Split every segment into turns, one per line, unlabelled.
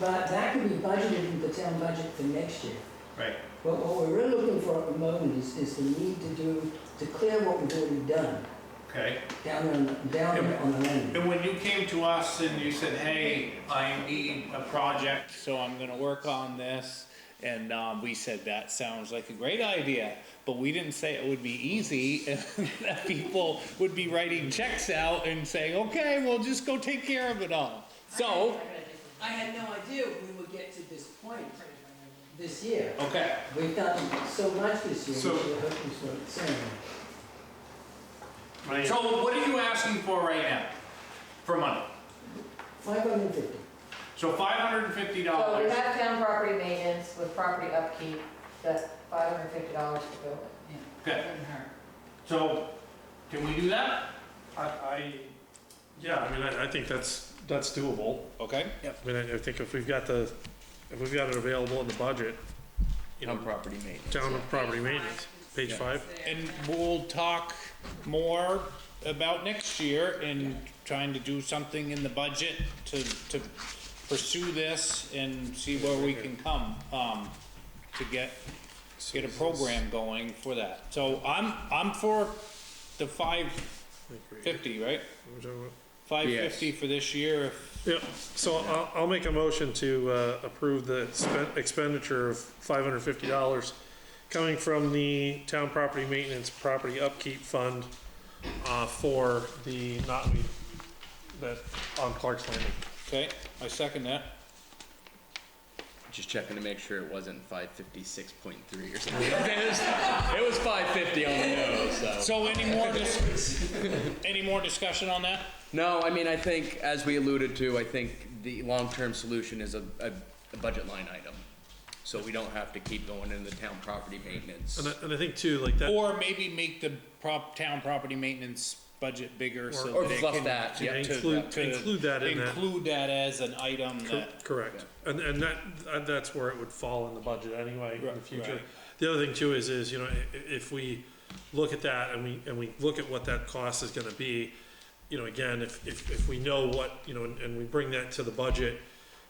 But that could be budgeted in the town budget for next year.
Right.
But what we're really looking for at the moment is, is the need to do, to clear what we've already done
Okay.
down on, down there on the land.
And when you came to us and you said, hey, I need a project, so I'm gonna work on this, and, um, we said, that sounds like a great idea, but we didn't say it would be easy, and that people would be writing checks out and saying, okay, we'll just go take care of it all. So,
I had no idea we would get to this point this year.
okay,
We've done so much this year,
So-
we should hope this one, so.
so what are you asking for right now, for money?
Five hundred and fifty.
So five hundred and fifty
So we
dollars,
have town property maintenance with property upkeep, that's five hundred and fifty dollars to build it.
okay, so, can we do that?
I, I, yeah, I mean, I, I think that's, that's doable.
Okay.
I mean, I I think if we've got the, if we've got it available in the budget, you know,
property maintenance.
town property maintenance, page five.
And we'll talk more about next year and trying to do something in the budget to, to pursue this and see where we can come, um, to get, get a program going for that. So I'm, I'm for the five fifty, right? Five fifty for this year, if-
Yep, so I'll, I'll make a motion to, uh, approve the expen- expenditure of five hundred fifty dollars coming from the town property maintenance property upkeep fund, uh, for the knotweed that, on Clark's Landing.
okay, I second that.
Just checking to make sure it wasn't five fifty six point three or something. it was, it was five fifty on the nose, so.
So any more, dis- any more discussion on that?
No, I mean, I think, as we alluded to, I think the long-term solution is a, a, a budget line item. So we don't have to keep going into the town property maintenance.
And I, and I think too, like that.
Or maybe make the prop, town property maintenance budget bigger so
Or
that it
fluff
can.
that, yeah,
to-
include-
to
include that in that.
Include that as an item
Cor-
that,
Correct, and, and that, uh, that's where it would fall in the budget anyway in the
Right,
future.
right.
The other thing too is, is, you know, i- i- if we look at that and we, and we look at what that cost is gonna be, you know, again, if, if, if we know what, you know, and, and we bring that to the budget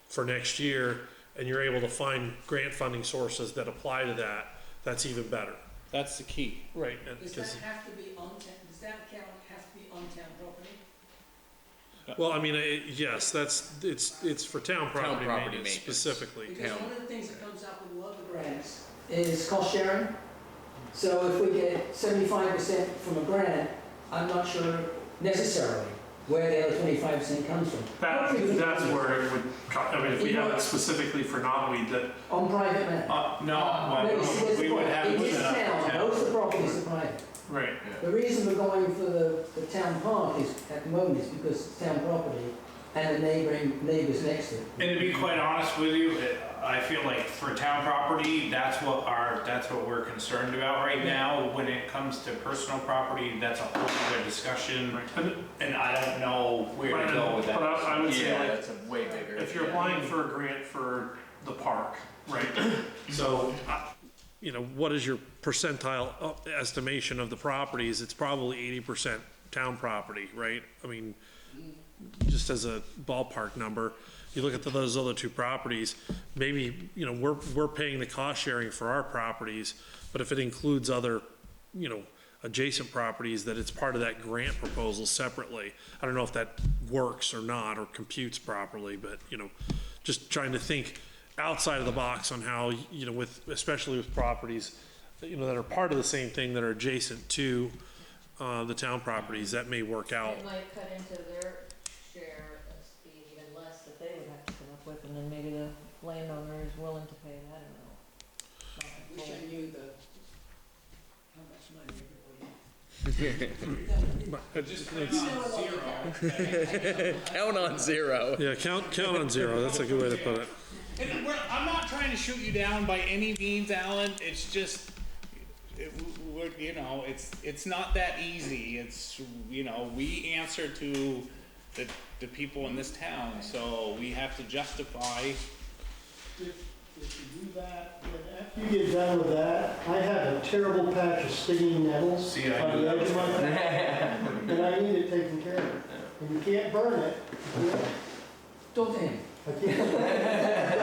for next year, and you're able to find grant funding sources that apply to that, that's even better.
that's the key.
Right. and- 'cause-
have to be on town, does that account have to be on town property?
Well, I mean, it, yes, that's, it's, it's for town property
property
maintenance
maintenance.
specifically.
Because
town.
one of the things that comes up with a lot of grants is cost sharing. So if we get seventy-five percent from a grant, I'm not sure necessarily where the other twenty-five percent comes from.
That,
Hopefully we
that's
can-
where it would, co- I mean, if we have it specifically for knotweed, that,
On private land.
Uh,
Oh,
No, you see, that's the problem. It is town, most of the properties are private.
right,
The reason we're going for the, the town park is, at the moment, is because it's town property and the neighboring, neighbors next to it.
And to be quite honest with you, it- I feel like for town property, that's what our, that's what we're concerned about right now. When it comes to personal property, that's a whole other discussion,
And-
and I don't know where to go with
But
that.
I, I would say, like,
that's a way bigger.
if you're applying for a grant for the park, right? So, I- you know, what is your percentile up- estimation of the properties? It's probably eighty percent town property, right? I mean, just as a ballpark number, you look at those other two properties, maybe, you know, we're, we're paying the cost sharing for our properties, but if it includes other, you know, adjacent properties, that it's part of that grant proposal separately. I don't know if that works or not, or computes properly, but, you know, just trying to think outside of the box on how, you know, with, especially with properties, you know, that are part of the same thing, that are adjacent to, uh, the town properties, that may work out.
It might cut into their share of speed even less that they would have to come up with, and then maybe the landowner is willing to pay that amount.
Wish I knew the, how much money everybody
Count on zero.
Yeah, count, count on zero, that's a good way to put it.
And we're, I'm not trying to shoot you down by any means, Alan. It's just, it, we're, you know, it's it's not that easy. It's you know, we answer to the the people in this town, so we have to justify.
If you do that, then after you get done with that, I have a terrible patch of stinging nettles on
See, I
the edge of my bed. And I need it taken care of. And you can't burn it.
would. Don't they?
Huh? I can't